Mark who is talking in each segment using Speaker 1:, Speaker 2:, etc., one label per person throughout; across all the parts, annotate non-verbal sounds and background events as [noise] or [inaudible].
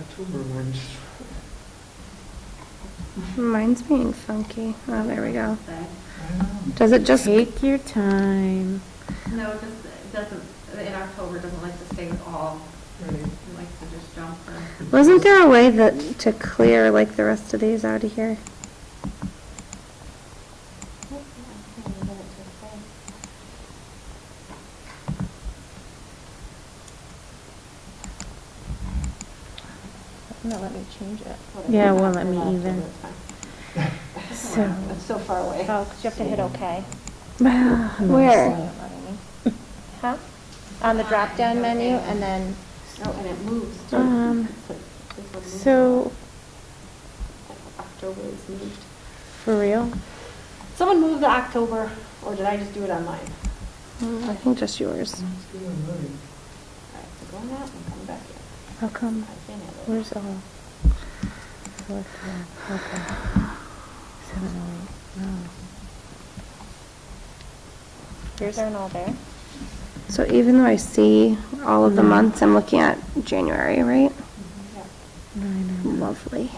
Speaker 1: October one's,
Speaker 2: Mine's being funky. Oh, there we go.
Speaker 1: I don't know.
Speaker 2: Does it just,
Speaker 3: Take your time.
Speaker 4: No, it just, it doesn't, in October, it doesn't like to stay all,
Speaker 1: Right.
Speaker 4: it likes to just jump for.
Speaker 2: wasn't there a way that, to clear like the rest of these out of here?
Speaker 5: No, let me change it.
Speaker 3: Yeah, it won't let me either.
Speaker 5: So. It's so far away.
Speaker 6: Oh, 'cause you have to hit OK.
Speaker 3: Uh-huh.
Speaker 2: Where?
Speaker 6: [laughs] Huh? On the drop-down menu, and then,
Speaker 5: Oh, and it moves too.
Speaker 3: Um,
Speaker 5: So this one moves.
Speaker 3: So,
Speaker 5: October is moved.
Speaker 3: for real?
Speaker 5: Someone moved the October, or did I just do it on mine?
Speaker 2: Mm, I think just yours.
Speaker 1: Let's do one night.
Speaker 5: All right, so go on that and come back here.
Speaker 3: How come?
Speaker 5: I can't have it.
Speaker 3: Where's all? Select all, okay. Seven oh eight, no.
Speaker 6: yours aren't all there.
Speaker 2: So even though I see all of the months, I'm looking at January, right?
Speaker 3: Nine oh
Speaker 2: Lovely.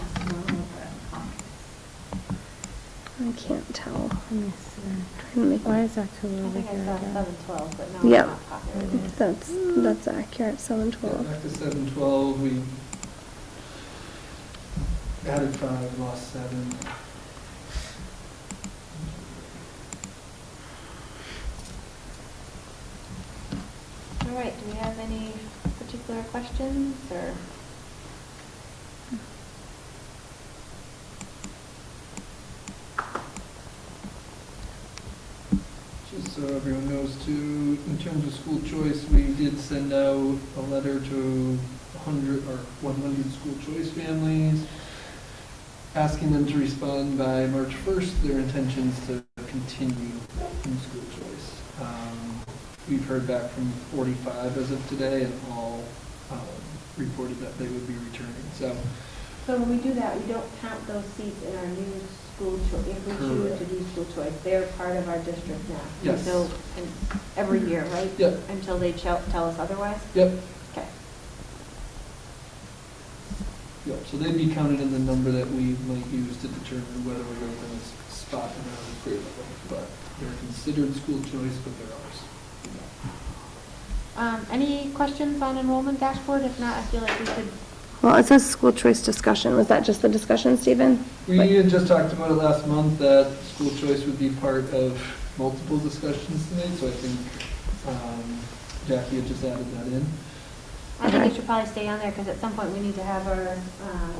Speaker 4: Well,
Speaker 2: I can't tell.
Speaker 3: I missed that.
Speaker 2: Trying to make
Speaker 3: Why is October
Speaker 5: I
Speaker 3: over
Speaker 5: think I
Speaker 3: here
Speaker 5: saw
Speaker 3: again?
Speaker 5: seven twelve, but now
Speaker 2: Yep.
Speaker 5: it's not popular.
Speaker 2: That's, that's accurate, seven
Speaker 1: Yeah,
Speaker 2: twelve.
Speaker 1: After seven twelve, we added five, lost seven.
Speaker 5: All right, do we have any particular questions or?
Speaker 1: Just so everyone knows too, in terms of school choice, we did send out a letter to 100 or 100 school choice families, asking them to respond by March 1st, their intentions to continue in school choice. Um, We've heard back from 45 as of today, and all um, reported that they would be returning, so.
Speaker 5: So when we do that, we don't count those seats in our new school choice, if we choose to do school choice, they're part of our district now.
Speaker 1: Yes.
Speaker 5: Until, and every year, right?
Speaker 1: Yep.
Speaker 5: Until they tell, tell us otherwise?
Speaker 1: Yep.
Speaker 5: Okay.
Speaker 1: Yep, so they'd be counted in the number that we might use to determine whether we're going to spot them out of the grade level. But they're considered school choice, but they're ours.
Speaker 5: Um, any questions on enrollment dashboard? If not, I feel like we could,
Speaker 2: Well, it says school choice discussion. Was that just the discussion, Stephen?
Speaker 1: We
Speaker 2: Right.
Speaker 1: had just talked about it last month, that school choice would be part of multiple discussions tonight, so I think um, Jackie had just added that in.
Speaker 5: I think
Speaker 2: Okay.
Speaker 5: it should probably stay on there, because at some point we need to have our, uh,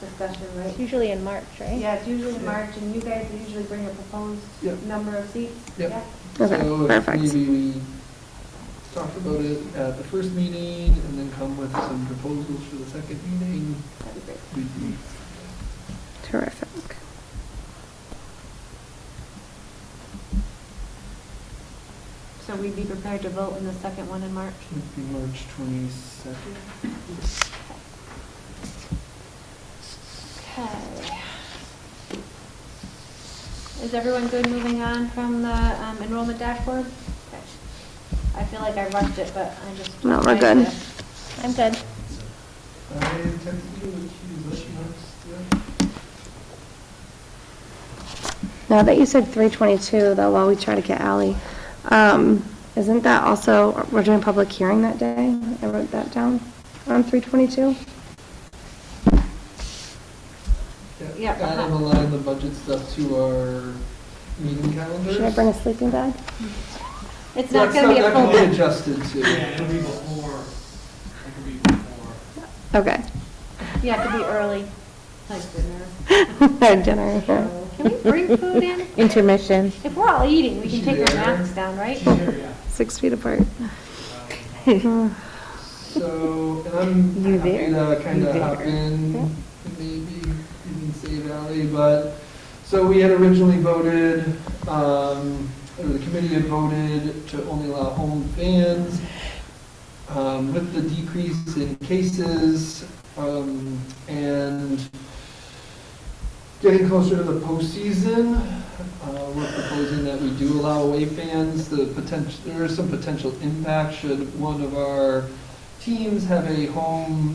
Speaker 5: discussion,
Speaker 6: It's
Speaker 5: right?
Speaker 6: usually in March, right?
Speaker 5: Yeah, it's usually
Speaker 1: Yeah.
Speaker 5: March, and you guys usually bring a proposed
Speaker 1: Yep.
Speaker 5: number of seats?
Speaker 1: Yep.
Speaker 5: Yeah?
Speaker 2: Okay,
Speaker 1: So if
Speaker 2: perfect.
Speaker 1: maybe we talk about it at the first meeting and then come with some proposals for the second meeting,
Speaker 5: That'd be great.
Speaker 1: we'd be
Speaker 2: Terrific.
Speaker 5: So we'd be prepared to vote in the second one in March?
Speaker 1: Would be March 22nd.
Speaker 5: Okay. Is everyone good moving on from the um, enrollment dashboard? Okay. I feel like I rushed it, but I just.
Speaker 2: No, we're
Speaker 5: trying
Speaker 2: good.
Speaker 5: to-
Speaker 6: I'm good.
Speaker 1: I texted you with you, unless you want
Speaker 2: Now that you said 322, though, while we try to get Ally, um, isn't that also, we're doing public hearing that day? I wrote that down on 322?
Speaker 1: to.
Speaker 5: Yeah,
Speaker 1: Kind of
Speaker 5: uh-huh.
Speaker 1: align the budget stuff to our meeting calendars.
Speaker 2: Should I bring a sleeping bag?
Speaker 5: It's not going to be a
Speaker 1: That
Speaker 5: full
Speaker 1: can be [laughs]
Speaker 5: day.
Speaker 1: adjusted to.
Speaker 7: Yeah, it'll be before, it'll be before.
Speaker 2: Okay. [laughs]
Speaker 5: You have to be early. Like dinner.
Speaker 2: Dinner. yeah.
Speaker 5: Can we bring food in?
Speaker 3: Intermission.
Speaker 5: If we're all eating, we can
Speaker 1: She
Speaker 5: take our
Speaker 1: there?
Speaker 5: masks down, right?
Speaker 7: Sure, yeah.
Speaker 2: Six feet apart.
Speaker 7: Um,
Speaker 1: So, and I'm
Speaker 3: You
Speaker 1: happy
Speaker 3: there?
Speaker 1: to kind of
Speaker 3: You
Speaker 1: hop
Speaker 3: there?
Speaker 1: in, maybe, even say Valley, but, so we had originally voted, um, or the committee had voted to only allow home bans. Um, with the decrease in cases, um, and getting closer to the postseason, uh, we're proposing that we do allow away fans, the potential, there is some potential impact should one of our teams have a home